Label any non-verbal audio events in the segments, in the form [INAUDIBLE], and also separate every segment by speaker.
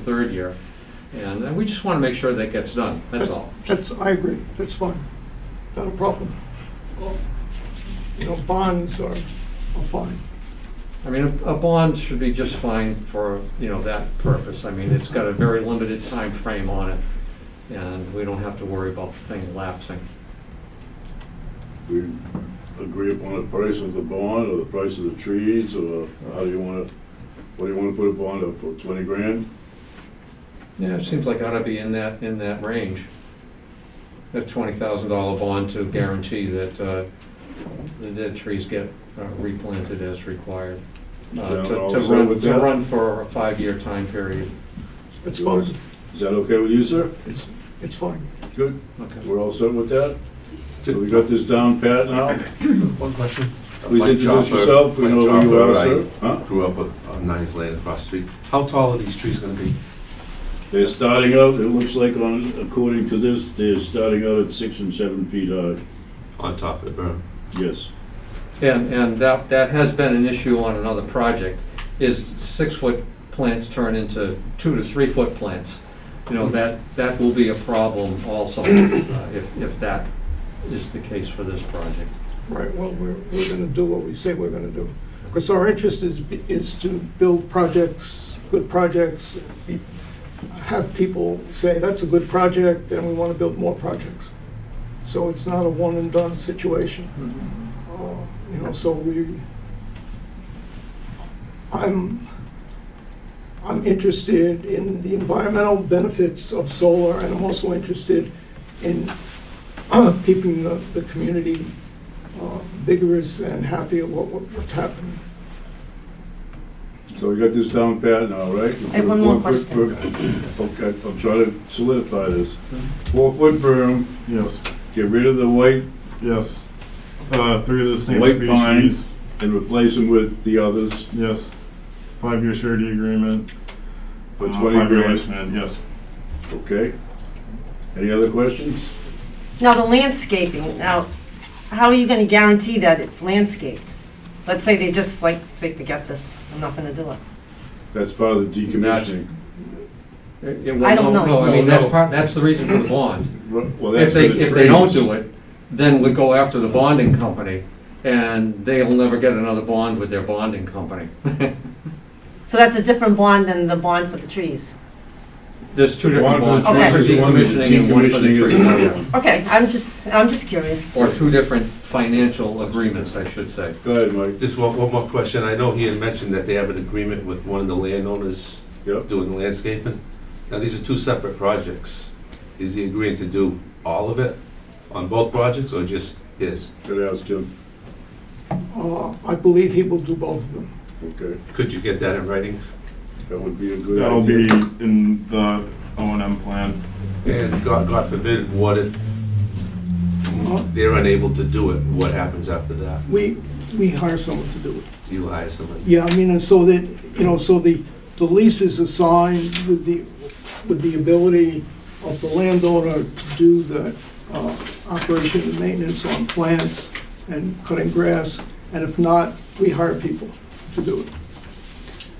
Speaker 1: third year. And uh, we just want to make sure that gets done, that's all.
Speaker 2: That's, I agree, that's fine, not a problem. You know, bonds are, are fine.
Speaker 1: I mean, a a bond should be just fine for, you know, that purpose. I mean, it's got a very limited time frame on it, and we don't have to worry about the thing lapsing.
Speaker 3: we agree upon the price of the bond, or the price of the trees, or how do you wanna, what do you wanna put a bond up for, twenty grand?
Speaker 1: Yeah, it seems like it ought to be in that, in that range. A twenty thousand dollar bond to guarantee that uh, the dead trees get uh, replanted as required. Uh,
Speaker 3: Is that
Speaker 1: to-
Speaker 3: all
Speaker 1: To
Speaker 3: set
Speaker 1: run,
Speaker 3: with
Speaker 1: to
Speaker 3: that?
Speaker 1: run for a five-year time period.
Speaker 2: It's
Speaker 3: You
Speaker 2: fine,
Speaker 3: want- Is that okay with you, sir?
Speaker 2: it's, it's fine.
Speaker 3: Good.
Speaker 1: Okay.
Speaker 3: We're all set with that? So we got this down pat now?
Speaker 4: One question.
Speaker 3: Please
Speaker 4: Mike
Speaker 3: introduce
Speaker 4: Chopper-
Speaker 3: yourself, we
Speaker 4: Mike
Speaker 3: know who you
Speaker 4: Chopper,
Speaker 3: are,
Speaker 4: I
Speaker 3: sir. Huh?
Speaker 4: Grew up on Nice Lane across the street. How tall are these trees gonna be?
Speaker 3: They're starting out, it looks like on, according to this, they're starting out at six and seven feet high,
Speaker 4: On top of the berm?
Speaker 3: yes.
Speaker 1: And, and that, that has been an issue on another project, is six-foot plants turn into two to three-foot plants. You know, that, that will be a problem also, uh, if, if that is the case for this project.
Speaker 2: Right, well, we're, we're gonna do what we say we're gonna do. Because our interest is, is to build projects, good projects, be- have people say, that's a good project, and we wanna build more projects. So it's not a one-and-done situation. Uh, You know, so we, I'm, I'm interested in the environmental benefits of solar, and I'm also interested in uh, keeping the, the community uh, vigorous and happy at what, what- what's happening.
Speaker 3: So we got this down pat now, right?
Speaker 5: I have one more
Speaker 3: Four foot
Speaker 5: question.
Speaker 3: berm- [LAUGHS] Okay, I'm trying to solidify this. Four-foot berm,
Speaker 6: Yes,
Speaker 3: get rid of the white
Speaker 6: yes. Uh, three of the same
Speaker 3: White pine.
Speaker 6: species.
Speaker 3: and replace them with the others
Speaker 6: Yes. Five-year surety agreement.
Speaker 3: for
Speaker 6: uh,
Speaker 3: 20
Speaker 6: five-year
Speaker 3: grand,
Speaker 6: lifespan, Yes.
Speaker 3: okay? Any other questions?
Speaker 5: Now, the landscaping, now, how are you gonna guarantee that it's landscaped? Let's say they just like, say, forget this, I'm not gonna do it.
Speaker 3: That's part of the decommissioning.
Speaker 1: It- it will-
Speaker 5: I don't
Speaker 1: no, No,
Speaker 5: know.
Speaker 1: I mean,
Speaker 3: No,
Speaker 1: that's
Speaker 3: no.
Speaker 1: part, that's the reason for the bond.
Speaker 3: Well,
Speaker 1: If
Speaker 3: that's
Speaker 1: they,
Speaker 3: for the
Speaker 1: if they don't
Speaker 3: trees.
Speaker 1: do it, then we go after the bonding company, and they'll never get another bond with their bonding company.
Speaker 5: So that's a different bond than the bond for the trees.
Speaker 1: There's two different
Speaker 3: One
Speaker 1: bonds,
Speaker 3: for
Speaker 5: the
Speaker 1: one for
Speaker 3: trees is one for the
Speaker 1: decommissioning and one for the
Speaker 3: decommissioning is another
Speaker 1: tree.
Speaker 3: one.
Speaker 5: Okay, I'm just, I'm just curious.
Speaker 1: Or two different financial agreements, I should say.
Speaker 3: Go ahead, Mike.
Speaker 4: Just one, one more question. I know he had mentioned that they have an agreement with one of the landowners
Speaker 3: Yep.
Speaker 4: doing the landscaping. Now, these are two separate projects. Is he agreeing to do all of it on both projects or just his?
Speaker 3: Gotta ask him,
Speaker 2: Uh, I believe he will do both of them.
Speaker 3: okay?
Speaker 4: Could you get that in writing?
Speaker 3: That would be a good
Speaker 6: That'll
Speaker 3: idea.
Speaker 6: be in the O and M plan.
Speaker 4: And God, God forbid, what if they're unable to do it? What happens after that?
Speaker 2: Uh, We, we hire someone to do it.
Speaker 4: You hire somebody?
Speaker 2: Yeah, I mean, and so that, you know, so the, the lease is assigned with the, with the ability of the landowner to do the uh, operation and maintenance on plants and cutting grass, and if not, we hire people to do it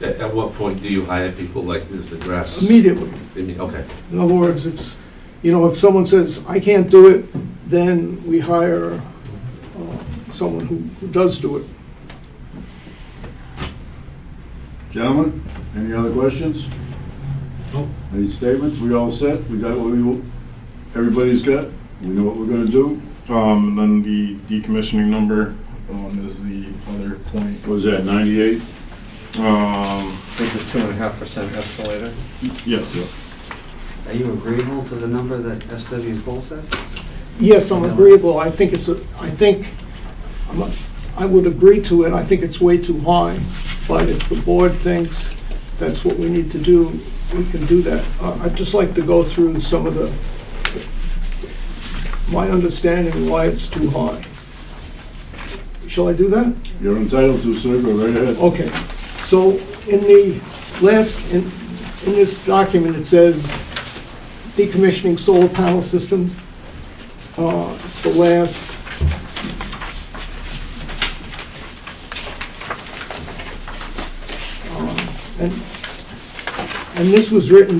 Speaker 4: At, at what point do you hire people like this, the grass?
Speaker 2: immediately.
Speaker 4: I mean, okay,
Speaker 2: In other words, it's, you know, if someone says, I can't do it, then we hire uh, someone who who does do it.
Speaker 3: Gentlemen, any other questions?
Speaker 4: Nope.
Speaker 3: Any statements? We all set? We got what we, everybody's got? We know what we're gonna do?
Speaker 6: Um, and then the decommissioning number, um, is the other point.
Speaker 3: What is that, 98?
Speaker 6: Um,
Speaker 1: Which is two and a half percent escalator.
Speaker 6: yes.
Speaker 7: Are you agreeable to the number that SW Cole says?
Speaker 2: Yes, I'm agreeable, I think it's, a. I think, I'm a- I would agree to it, I think it's way too high, but if the board thinks that's what we need to do, we can do that. Uh, I'd just like to go through some of the, my understanding why it's too high. Shall I do that?
Speaker 3: You're entitled to, sir, go right ahead.
Speaker 2: Okay, so in the last, in, in this document, it says decommissioning solar panel systems. Uh, it's the last. Um, Uh, And And this was written